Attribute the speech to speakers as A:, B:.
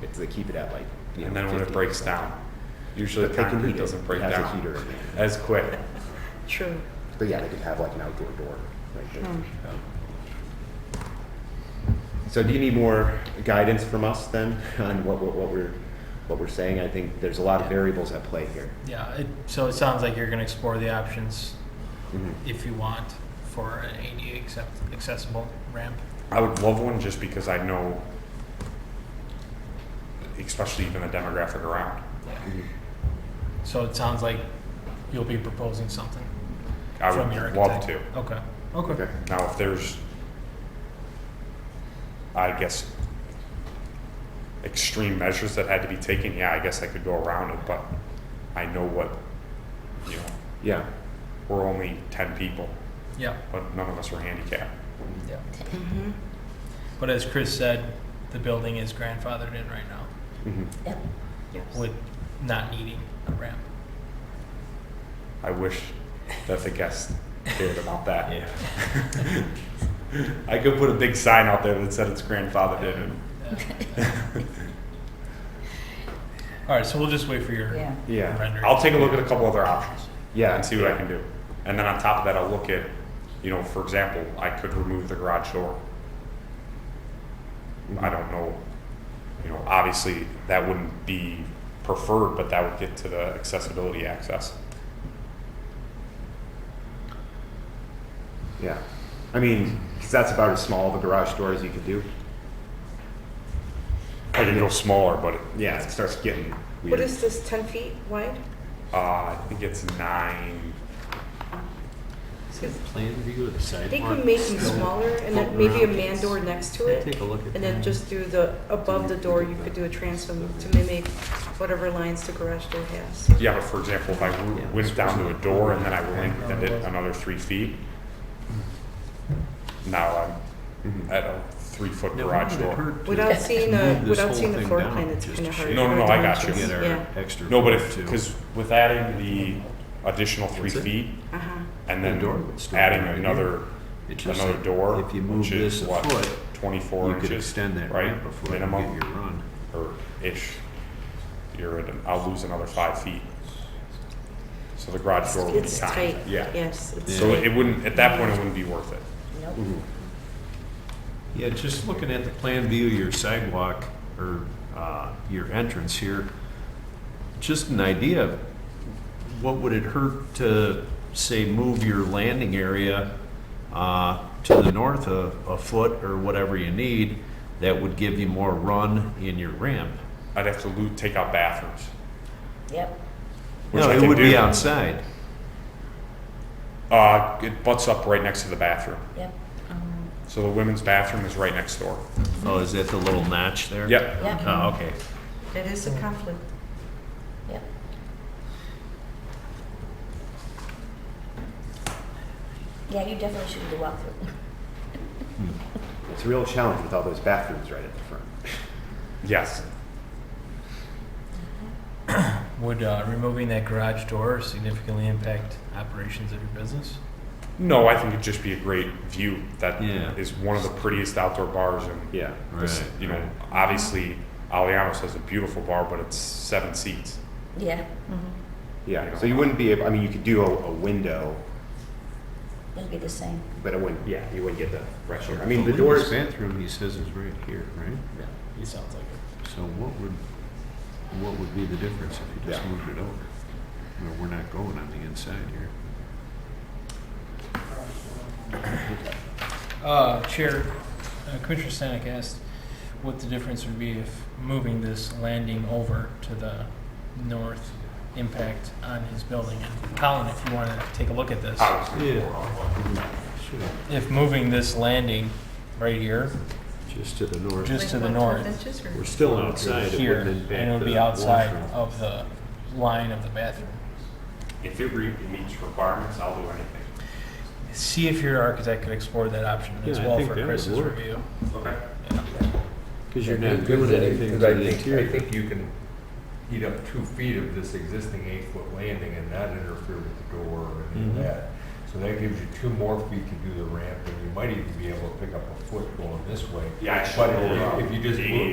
A: because they keep it at like. you
B: and
A: know,
B: then when it
A: 50.
B: breaks down, usually
A: But
B: the
A: they can heat
B: concrete
A: it.
B: doesn't break
A: It has a
B: down
A: heater in it.
B: as quick.
C: True.
A: But yeah, they could have like an outdoor door right there.
C: Hmm.
A: Um, So do you need more guidance from us then on what, what, what we're, what we're saying? I think there's a lot of variables at play here.
D: Yeah, it, so it sounds like you're gonna explore the options
A: Mhm.
B: Mm-hmm.
D: if you want for an ADA accept, accessible ramp.
B: I would love one just because I know, especially even the demographic around.
D: So it sounds like you'll be proposing something
B: I
D: from your
B: would love
D: architect.
B: to.
D: Okay, okay.
A: Okay.
B: Now, if there's, I guess, extreme measures that had to be taken, yeah, I guess I could go around it, but I know what, you know,
A: Yeah.
B: we're only ten people,
D: Yeah,
B: but none of us are handicapped.
D: yeah. But as Chris said, the building is grandfathered in right now
A: Mhm.
C: Yep.
D: with not needing a ramp.
B: I wish that the guests cared about that. I could put a big sign out there that said it's grandfathered in. and-
D: All right, so we'll just wait for your
C: Yeah.
A: Yeah.
D: rendering.
B: I'll take a look at a couple other options.
A: Yeah.
B: and see what I can do. And then on top of that, I'll look at, you know, for example, I could remove the garage door. I don't know, you know, obviously that wouldn't be preferred, but that would get to the accessibility access.
A: Yeah. I mean, 'cause that's about as small of a garage door as you could do.
B: I can go smaller, but, it-
A: Yeah, it starts getting
E: What
A: weird.
E: is this, 10 feet wide?
B: uh, I think it's nine,
F: Plan, if you go to the
E: I
F: sidewalk.
E: think we make them smaller and then maybe a man door next to it.
F: Take a look at that.
E: And then just do the, above the door, you could do a transom to mimic whatever lines the garage door has.
B: yeah, but for example, if I w-
F: Yeah.
B: went down to a door and then I lengthened it another three feet, now I'm at a three-foot
F: Now,
B: garage
F: wouldn't Mm-hmm. it
B: door.
F: hurt to
E: Without seeing a,
F: move this
E: without
F: whole
E: seeing the
F: thing
E: floor
F: down
E: plan, it's
F: just
E: kind of
F: to
E: hard.
F: show
B: No, no, no, I got you.
F: Get our
E: Yeah.
F: extra.
B: No, but
F: door,
B: if,
F: too.
B: because with adding the additional three
F: What's it?
B: feet
E: Uh-huh.
B: and then
F: The door would still
B: adding
F: be right
B: another,
F: It's just
B: another
F: like,
B: door,
F: If you move
B: which
F: this
B: is
F: a
B: what,
F: foot,
B: twenty-four
F: you
B: inches?
F: could extend that
B: right?
F: ramp before you get
B: Minimum,
F: your run.
B: or ish. You're at, an- I'll lose another five feet. So the garage door would be
E: It's tight.
B: tight, yeah.
E: Yes, it's
B: So
F: Yeah.
B: it wouldn't, at that point, it wouldn't be worth it.
C: Nope.
F: Yeah, just looking at the plan view, of your sidewalk or uh, your entrance here, just an idea, of what would it hurt to, say, move your landing area uh, to the north a a foot or whatever you need that would give you more run in your ramp?
B: I'd have to lo- take out bathrooms,
C: Yep.
B: which
F: No,
B: I
F: it
B: can
F: would be
B: do.
F: outside.
B: Uh, it butts up right next to the bathroom.
C: Yep.
B: So the women's bathroom is right next door.
F: Oh, is that the little notch there?
B: Yep.
C: Yep.
F: Oh, okay.
E: That is a conflict.
C: Yep. Yeah, you definitely should do a walkthrough.
A: It's a real challenge with all those bathrooms right at the front.
B: Yes.
D: Would uh, removing that garage door significantly impact operations of your business?
B: No, I think it'd just be a great view. That is
F: Yeah.
B: one of the prettiest outdoor bars, and
A: Yeah.
B: this-
F: Right,
B: you know,
F: right.
B: obviously, Alianos has a beautiful bar, but it's seven seats.
C: Yeah.
A: Yeah. So you wouldn't be, able. I mean, you could do a, a window,
C: It'll be the same.
A: but it wouldn't, yeah, you wouldn't get the fresh air. I
F: The
A: mean, the doors.
F: women's Bathroom, he says, is right here, right?
D: Yeah. It sounds like it.
F: So what would, what would be the difference if you just
A: Yeah.
F: moved it over? Well, we're not going on the inside here.
D: Uh, Chair, uh, Commissioner Stanek asked what the difference would be if moving this landing over to the north impact on his building. And Colin, if you want to take a look at this,
F: Uh-huh.
B: Obviously,
F: Sure.
D: if moving this landing right here,
F: Just to the north.
D: just to the
E: Like
D: north,
E: 1.5 inches or-
F: We're still outside. It
D: here,
F: wouldn't
D: and
F: impact
D: it would be
F: the
D: outside
F: washroom.
D: of the line of the bathroom.
B: if it re- meets requirements, I'll do anything.
D: See if your architect could explore that option as
F: Yeah, I
D: well
F: think
D: for
F: that would
D: Chris's
F: work.
D: review.
B: Okay.
D: Oh.
F: Because you're not doing anything to
G: Because I
F: the
G: think, I
F: interior.
G: think you can heat up two feet of this existing eight-foot landing and not interfere with the door or any
D: Mm-hmm.
G: of
F: Mhm.
G: that. So that gives you two more feet to do the ramp, and you might even be able to pick up a foot going this way.
B: Yeah, I
G: But
B: should-
G: if you just
B: the-
G: move,